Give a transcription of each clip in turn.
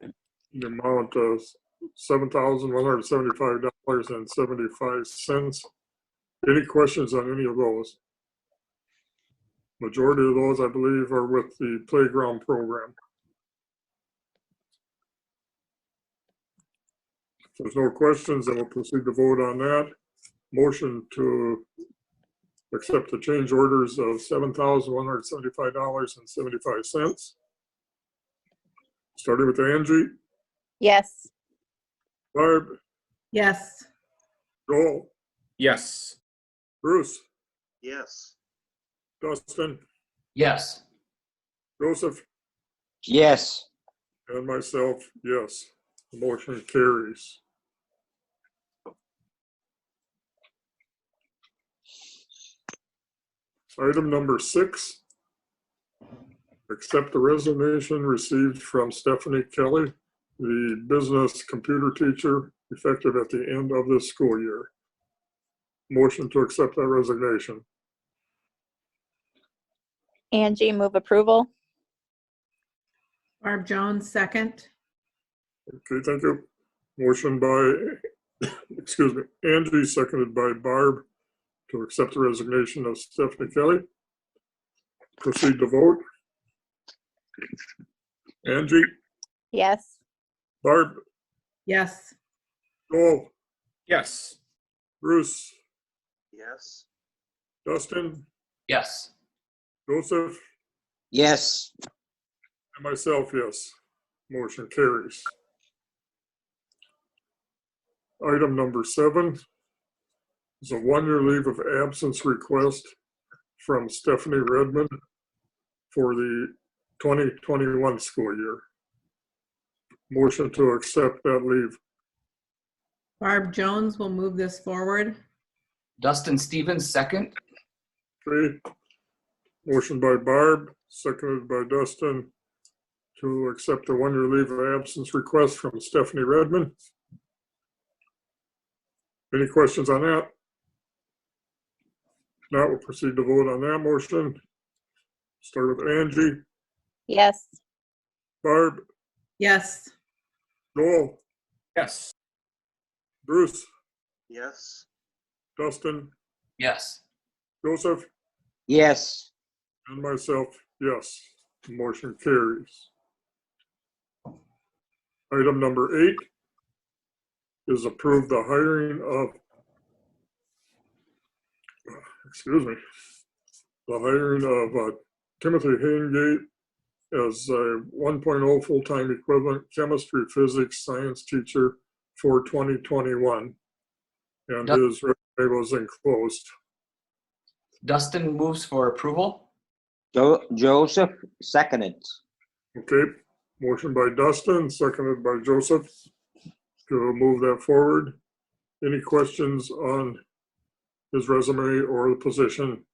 the amount of seven thousand one hundred seventy-five dollars and seventy-five cents. Any questions on any of those? Majority of those, I believe, are with the playground program. If there's no questions, then we'll proceed to vote on that. Motion to accept the change orders of seven thousand one hundred seventy-five dollars and seventy-five cents. Starting with Angie, Yes. Barb, Yes. Joel, Yes. Bruce, yes, Dustin, Yes. Joseph, Yes. and myself, yes. The motion carries. Item number six. Accept the resignation received from Stephanie Kelly, the business computer teacher, effective at the end of this school year. Motion to accept that resignation. Angie, move approval. Barb Jones, second. Okay, thank you. Motion by, excuse me, Angie, seconded by Barb to accept the resignation of Stephanie Kelly. Proceed to vote. Angie, Yes. Barb, Yes. Joel, Yes. Bruce, yes, Dustin, Yes. Joseph, Yes. and myself, yes. Motion carries. Item number seven is a one-year leave of absence request from Stephanie Redmond for the 2021 school year. Motion to accept that leave. Barb Jones will move this forward. Dustin Stevens, second. Okay. Motion by Barb, seconded by Dustin to accept the one-year leave of absence request from Stephanie Redmond. Any questions on that? Now we'll proceed to vote on that motion. Start with Angie, Yes. Barb, Yes. Joel, Yes. Bruce, yes, Dustin, Yes. Joseph, Yes. and myself, yes. Motion carries. Item number eight is approve the hiring of, excuse me, the hiring of uh, Timothy Hingate as a 1.0 full-time equivalent chemistry, physics, science teacher for 2021. And Yep. his resume was enclosed. Dustin moves for approval. Jo- Joseph seconded. Okay, motion by Dustin, seconded by Joseph to move that forward. Any questions on his resume or the position?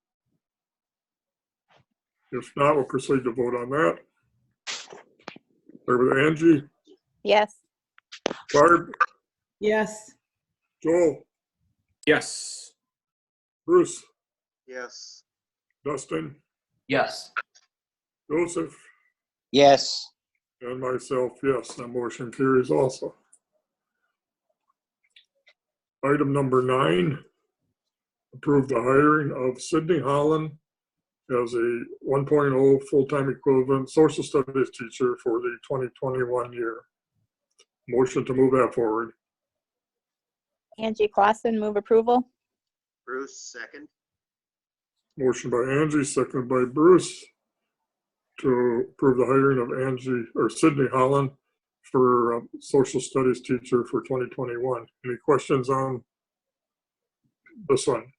If not, we'll proceed to vote on that. Start with Angie, Yes. Barb, Yes. Joel, Yes. Bruce, yes, Dustin, Yes. Joseph, Yes, and myself, yes, that motion carries also. Item number nine, approve the hiring of Sydney Holland as a 1.0 full-time equivalent social studies teacher for the 2021 year. Motion to move that forward. Angie Clausen, move approval. Bruce second, Motion by Angie, seconded by Bruce to approve the hiring of Angie or Sydney Holland for um, social studies teacher for 2021. Any questions on this one?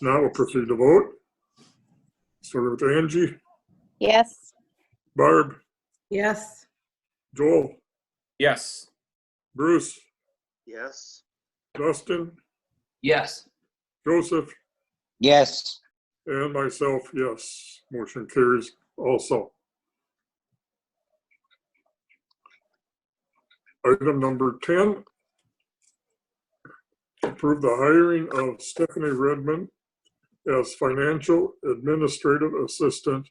Now we'll proceed to vote. Starting with Angie, Yes. Barb, Yes. Joel, Yes. Bruce, yes, Dustin, Yes. Joseph, yes, And myself, yes. Motion carries also. Item number 10. Approve the hiring of Stephanie Redmond as Financial Administrative Assistant